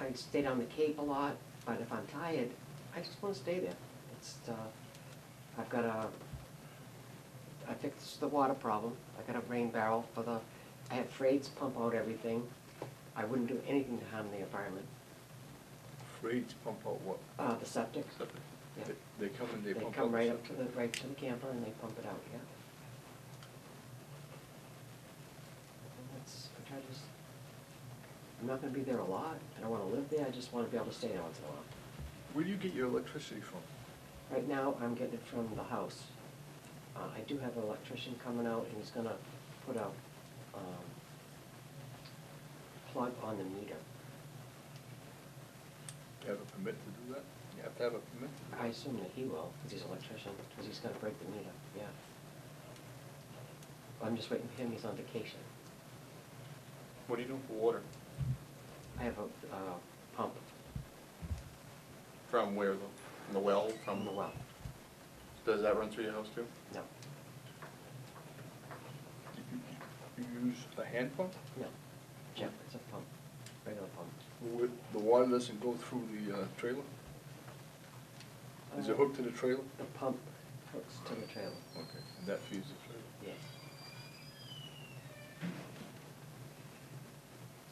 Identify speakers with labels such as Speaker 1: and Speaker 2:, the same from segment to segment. Speaker 1: I stayed on the Cape a lot, but if I'm tired, I just wanna stay there. It's, uh, I've got a, I fixed the water problem, I got a rain barrel for the, I had freights pump out everything. I wouldn't do anything to harm the environment,
Speaker 2: Freights pump out what?
Speaker 1: uh, the septic.
Speaker 2: Something.
Speaker 1: Yeah.
Speaker 2: They- They come and they
Speaker 1: They
Speaker 2: pump out.
Speaker 1: come right up to
Speaker 2: something.
Speaker 1: the, right to the camper and they pump it out, yeah. And That's, I try to just, I'm not gonna be there a lot, I don't wanna live there, I just wanna be able to stay there once in a while.
Speaker 2: Where do you get your electricity from?
Speaker 1: Right now, I'm getting it from the house. Uh, I do have an electrician coming out and he's gonna put a, um, plug on the meter.
Speaker 2: You have a permit to do that? You have to have a permit to do that?
Speaker 1: I assume that he will, because he's an electrician, because he's gonna break the meter, yeah. I'm just waiting for him, he's on vacation.
Speaker 2: What do you do for water?
Speaker 1: I have a, uh, pump
Speaker 3: From where, though? From the well?
Speaker 1: from the well,
Speaker 3: Does that run through your house too?
Speaker 1: no,
Speaker 2: Do You you use a hand pump?
Speaker 1: no. Jeff, it's a pump, regular pump.
Speaker 2: Would- The water doesn't go through the uh, trailer? Is it
Speaker 1: Uh,
Speaker 2: hooked to the trailer?
Speaker 1: The pump hooks to the trailer,
Speaker 2: Okay, and that feeds the trailer.
Speaker 1: yes.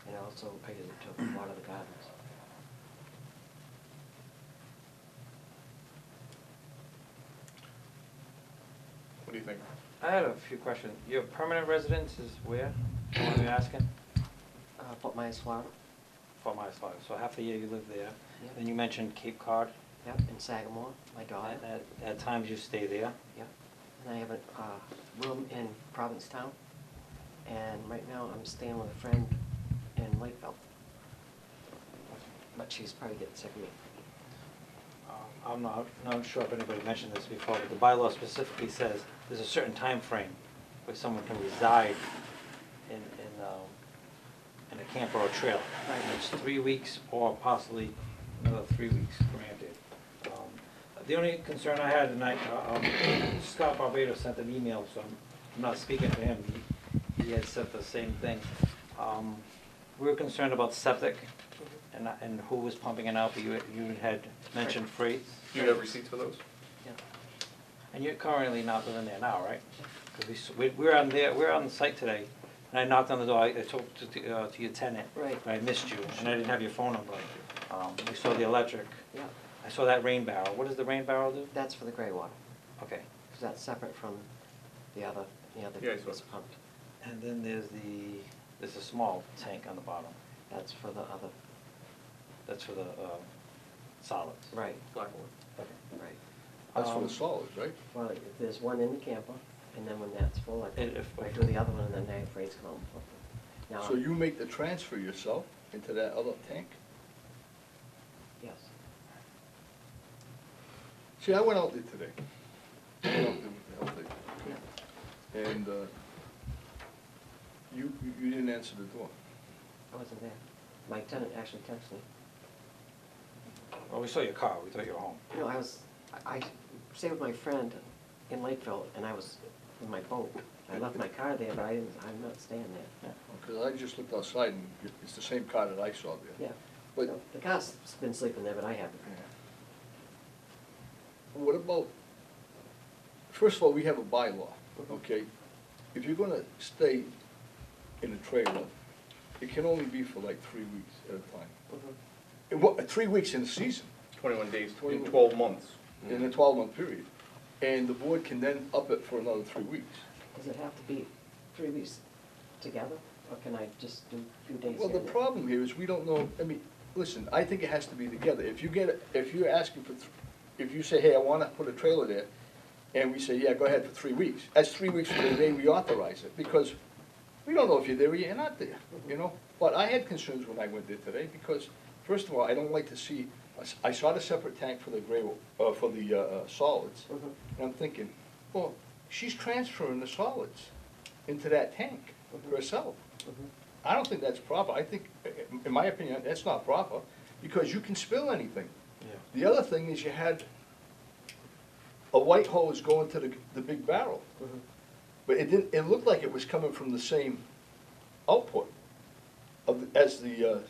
Speaker 1: And also, I use it to water the gardens.
Speaker 3: What do you think?
Speaker 4: I had a few questions. Your permanent residence is where? What are you asking?
Speaker 1: Uh, Fort Myers, Florida,
Speaker 4: For my slide. So half the year you live there.
Speaker 1: Yeah.
Speaker 4: Then you mentioned Cape Cod.
Speaker 1: yep, in Sagamore, my daughter,
Speaker 4: And At, at times you stay there.
Speaker 1: yep. And I have a, uh, room in Provincetown, and right now I'm staying with a friend in Lakeville. But she's probably getting sick of me.
Speaker 4: Um, I'm not, not sure if anybody mentioned this before, but the bylaw specifically says there's a certain time frame where someone can reside in, in, um, in a camper or trailer.
Speaker 1: Right.
Speaker 4: And it's three weeks or possibly another three weeks granted. Um, The only concern I had, and I, um, Scott Barbato sent an email, so I'm I'm not speaking for him. He he had said the same thing. Um, We were concerned about septic and, and who was pumping it out, but you, you had mentioned freights.
Speaker 3: Do you have receipts for those?
Speaker 1: Yeah.
Speaker 4: And you're currently not living there now, right? Because we, s- we, we were on there, we were on the site today, and I knocked on the door, I, I talked to, the, uh, to your tenant.
Speaker 1: Right.
Speaker 4: but I missed you, and I didn't have your phone number. Um, we saw the electric,
Speaker 1: Yeah,
Speaker 4: I saw that rain barrel, what does the rain barrel do?
Speaker 1: that's for the gray water,
Speaker 4: Okay,
Speaker 1: because that's separate from the other, the other
Speaker 3: Yeah, I saw
Speaker 1: that's
Speaker 3: it.
Speaker 1: pumped.
Speaker 4: and then there's the, there's a small tank on the bottom,
Speaker 1: That's for the other,
Speaker 4: that's for the, uh, solids.
Speaker 1: right,
Speaker 3: Blackboard.
Speaker 4: Okay.
Speaker 1: right.
Speaker 2: That's for
Speaker 4: Um,
Speaker 2: the solids, right?
Speaker 1: Well, if there's one in the camper, and then when that's full, I,
Speaker 4: And if-
Speaker 1: I do the other one, and then they have rates come up. Now,
Speaker 2: So you make the transfer yourself into that other tank?
Speaker 1: Yes,
Speaker 2: See, I went out there today. I went out there with the health agent, okay? And uh, you, you- you didn't answer the door.
Speaker 1: I wasn't there. My tenant actually texted me.
Speaker 4: Well, we saw your car, we thought you were home.
Speaker 1: No, I was, I I stayed with my friend in Lakeville, and I was in my boat. I left my car there, but I didn't, I'm not staying there.
Speaker 4: Yeah.
Speaker 2: Because I just looked outside and it- it's the same car that I saw there.
Speaker 1: Yeah.
Speaker 2: But-
Speaker 1: So The car's been sleeping there, but I haven't.
Speaker 2: What about, first of all, we have a bylaw, okay? If you're gonna stay in a trailer, it can only be for like three weeks at a time.
Speaker 1: Mhm.
Speaker 2: And what, three weeks in a season,
Speaker 3: Twenty-one days, in
Speaker 2: 21.
Speaker 3: twelve months.
Speaker 2: in a twelve-month period. And the board can then up it for another three weeks.
Speaker 1: Does it have to be three weeks together, or can I just do a few days here?
Speaker 2: Well, the
Speaker 1: and there?
Speaker 2: problem here is we don't know, I mean, listen, I think it has to be together. If you get, if you're asking for, th- if you say, hey, I wanna put a trailer there, and we say, yeah, go ahead for three weeks, that's three weeks from the day we authorize it, because we don't know if you're there or you're not there, you know? But I had concerns when I went there today, because, first of all, I don't like to see, I s- I saw the separate tank for the gray, uh, for the, uh, uh, solids.
Speaker 1: Mhm.
Speaker 2: And I'm thinking, well, she's transferring the solids into that tank herself.
Speaker 1: Mhm.
Speaker 2: I don't think that's proper. I think, in- in my opinion, that's not proper, because you can spill anything.
Speaker 4: Yeah.
Speaker 2: The other thing is you had a white hose going to the, the big barrel.
Speaker 1: Mhm.
Speaker 2: But it didn't, it looked like it was coming from the same output of, the- as the, uh,